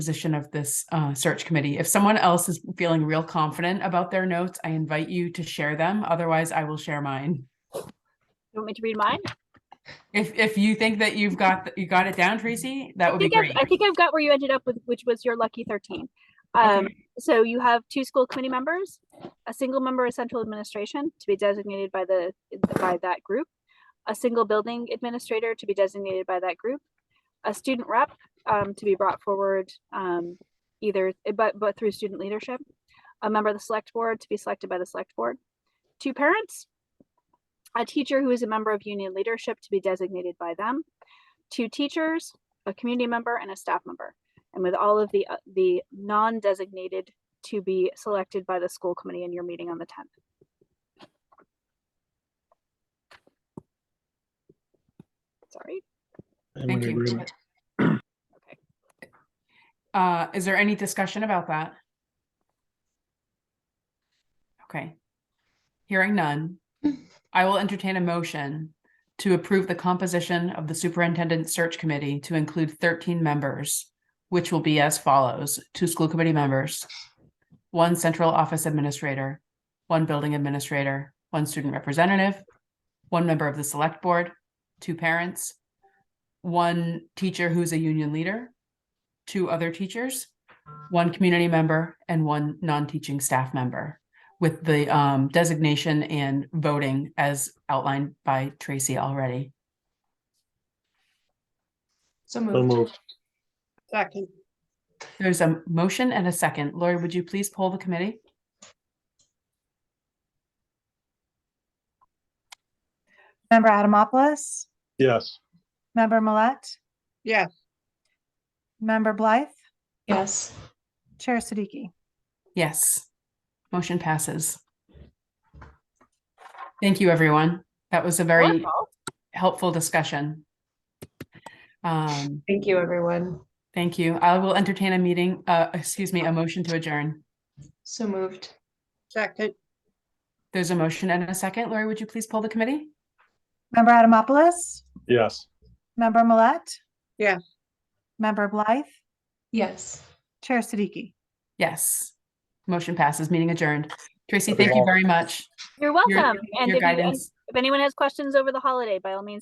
position of this uh, search committee. If someone else is feeling real confident about their notes, I invite you to share them. Otherwise, I will share mine. You want me to read mine? If if you think that you've got you got it down, Tracy, that I would be think, I've, great. I think I've got where you ended up with, which was your lucky 13. Um, So you have two school committee members, a single member of central administration to be designated by the by that group, a single building administrator to be designated by that group, a student rep um, to be brought forward um, either but but through student leadership, a member of the select board to be selected by the select board, two parents, a teacher who is a member of union leadership to be designated by them, two teachers, a community member and a staff member. And with all of the, uh, the non-designated to be selected by the school committee in your meeting on the 10th. Sorry, I'm Thank in you. agreement. okay. Uh, is there any discussion about that? Okay. Hearing none, I will entertain a motion to approve the composition of the superintendent search committee to include thirteen members, which will be as follows, two school committee members, one central office administrator, one building administrator, one student representative, one member of the select board, two parents, one teacher who's a union leader, two other teachers, one community member, and one non-teaching staff member, with the um, designation and voting as outlined by Tracy already. So So moved. moved. Second. There's a motion and a second. Lori, would you please poll the committee? Member Adamopoulos, Yes. member Millet. Yes. Member Blythe, Yes. Chair Siddiqui. Yes. Motion passes. Thank you, everyone. That was a very Wonderful. helpful discussion. Um, Thank you, everyone. Thank you. I will entertain a meeting, uh, excuse me, a motion to adjourn. So moved. Second, There's a motion and a second. Lori, would you please poll the committee? Member Adamopoulos, Yes. member Millet. Yes. Member Blythe, Yes. Chair Siddiqui. Yes. Motion passes, meeting adjourned. Tracy, thank you very much. Your- You're welcome. And Your if you- and guidance. if anyone has questions over the holiday, by all means,